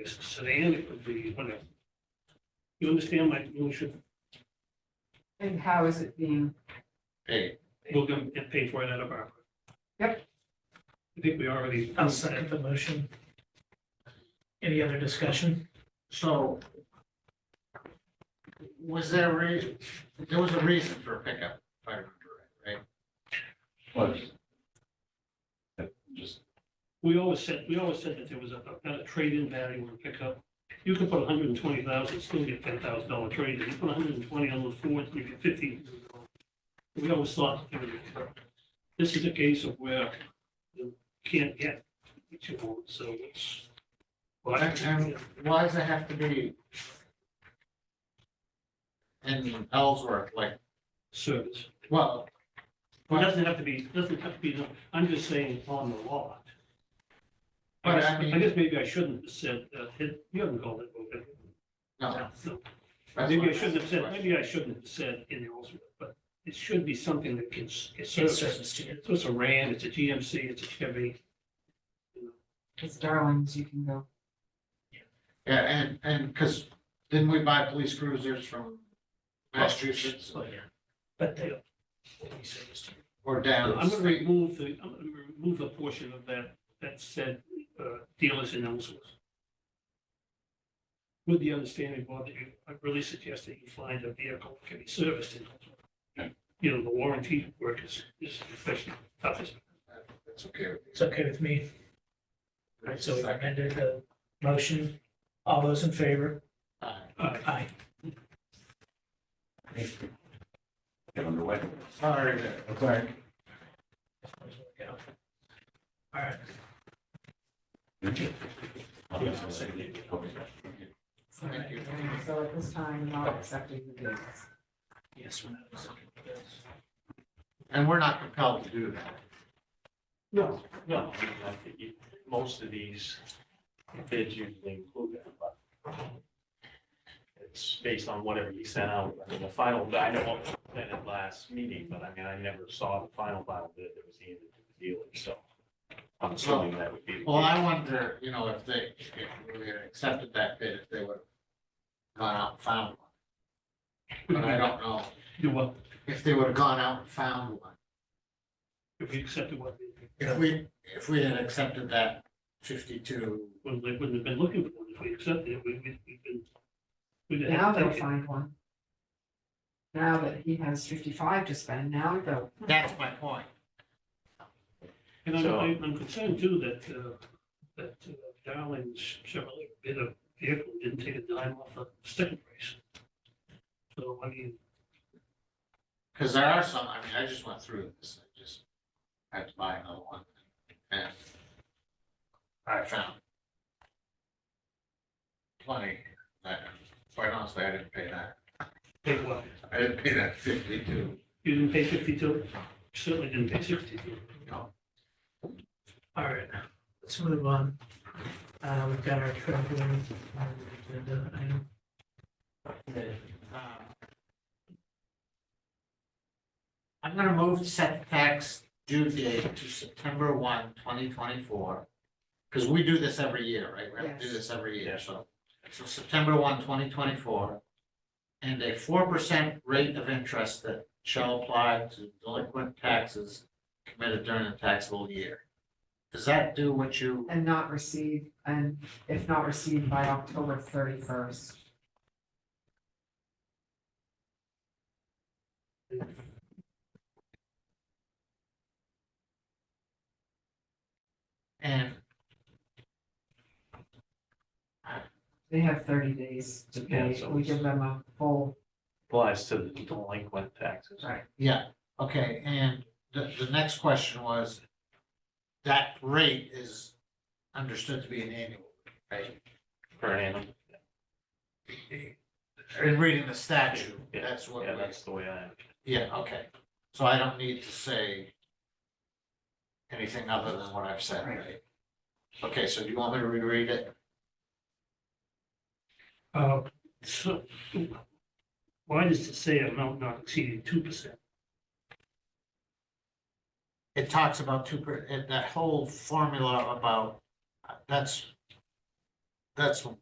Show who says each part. Speaker 1: It's a sedan, it could be whatever. You understand my motion?
Speaker 2: And how is it being,
Speaker 3: Hey,
Speaker 1: We're gonna get paid for it out of our.
Speaker 2: Yep.
Speaker 1: I think we already.
Speaker 4: I'll second the motion. Any other discussion?
Speaker 3: so was there a reason, there was a reason for a pickup, if I remember right, right?
Speaker 5: Was. That Just,
Speaker 1: We always said, we always said that there was a, a trade-in value on pickup. You can put hundred and twenty thousand, still get ten thousand dollar trade-in. You put hundred and twenty on the Ford, you get fifteen. We always thought. there was a- This is a case of where you can't get what you want, so it's.
Speaker 3: But, and why does it have to be in Ellsworth, like,
Speaker 1: Service.
Speaker 3: well,
Speaker 1: It doesn't have to be, doesn't have to be, I'm just saying on the lot. I
Speaker 3: But
Speaker 1: guess-
Speaker 3: I mean-
Speaker 1: I guess maybe I shouldn't have said, uh, it- you haven't called it, okay?
Speaker 3: no.
Speaker 1: No.
Speaker 3: that's
Speaker 1: Maybe
Speaker 3: what
Speaker 1: I shouldn't have said,
Speaker 3: question.
Speaker 1: maybe I shouldn't have said in the ultimate, but it should be something that can, s- it's
Speaker 4: It's
Speaker 1: service.
Speaker 4: service to you.
Speaker 1: So it's a Ram, it's a GMC, it's a Chevy.
Speaker 2: it's darlings, you can go.
Speaker 3: Yeah, and, and, because didn't we buy police cruisers from Massachusetts
Speaker 4: Oh, yeah. But they. they service to you.
Speaker 3: or down? the
Speaker 1: I'm gonna
Speaker 3: state?
Speaker 1: remove the, I'm gonna remove the portion of that, that said, uh, dealers in Ellsworth. With the understanding, Bob, that you, I really suggest that you find a vehicle that can be serviced in Ellsworth. You know, the warranty work is, is especially toughest.
Speaker 3: That's okay. with me.
Speaker 4: It's okay with me. All right, so we've amended the motion. All those in favor?
Speaker 3: All
Speaker 1: Uh,
Speaker 4: Aye.
Speaker 5: get underway.
Speaker 3: right.
Speaker 4: Oh,
Speaker 3: Sorry.
Speaker 5: Okay.
Speaker 4: All right,
Speaker 2: So
Speaker 3: Thank you.
Speaker 2: so at this time, not accepting the bids.
Speaker 4: yes, we're not accepting bills.
Speaker 3: And we're not compelled to do that.
Speaker 1: No,
Speaker 6: No, I mean, I think you- most of these bids usually include that, but it's based on whatever you sent out. I mean, the final, I know what was sent at last meeting, but I mean, I never saw the final final bid that was handed to the dealer, so I'm assuming that would be. the
Speaker 3: Well,
Speaker 6: case.
Speaker 3: I wonder, you know, if they, if we had accepted that bid, if they would have gone out and found one. But I don't know
Speaker 1: you what,
Speaker 3: if they would have gone out and found one.
Speaker 1: if you accepted what,
Speaker 3: If we, if we had accepted that fifty-two,
Speaker 1: well, they wouldn't have been looking for, if we accepted it, we, we- we've been. we'd have
Speaker 2: Now they'll
Speaker 1: taken-
Speaker 2: find one. Now that he has fifty-five to spend, now they'll,
Speaker 3: that's my point.
Speaker 1: And I'm,
Speaker 6: So-
Speaker 1: I'm- I'm concerned too that, uh, that uh, Darling's Chevrolet bid a vehicle didn't take a dime off the sticker price. So, I mean,
Speaker 3: Because there are some, I mean, I just went through this, I just had to buy another one, and I found plenty, that, quite honestly, I didn't pay that,
Speaker 1: pay what?
Speaker 3: I didn't pay that fifty-two,
Speaker 1: You didn't pay fifty-two? Certainly didn't pay sixty-two.
Speaker 3: you know,
Speaker 4: All right, let's move on. Uh, we've got our travel, um, agenda item.
Speaker 3: um, I'm gonna move to set the tax due date to September one, twenty twenty-four, because we do this every year, right? We have to do
Speaker 2: Yes.
Speaker 3: this every
Speaker 6: Yeah.
Speaker 3: year, so, so September 1, 2024, And a four percent rate of interest that shall apply to delinquent taxes committed during the taxable year. Does that do what you,
Speaker 2: and not receive, and if not received by October thirty-first.
Speaker 3: and
Speaker 2: They have thirty days to
Speaker 6: Yeah,
Speaker 2: pay,
Speaker 6: so
Speaker 2: we
Speaker 6: it's-
Speaker 2: give them a full,
Speaker 6: Applies to the delinquent taxes.
Speaker 2: right,
Speaker 3: Yeah, okay, and the, the next question was, that rate is understood to be an annual, rate,
Speaker 6: Per annum.
Speaker 3: right? In reading the statute,
Speaker 6: Yeah,
Speaker 3: that's what,
Speaker 6: Yeah,
Speaker 3: we-
Speaker 6: that's the way I,
Speaker 3: yeah, okay, so I don't need to say anything other than what I've said, right? Okay, so do you want me to reread it?
Speaker 1: Uh, so, why does it say amount not exceeding two percent?
Speaker 3: It talks about two, per- and that whole formula about, uh, that's that's when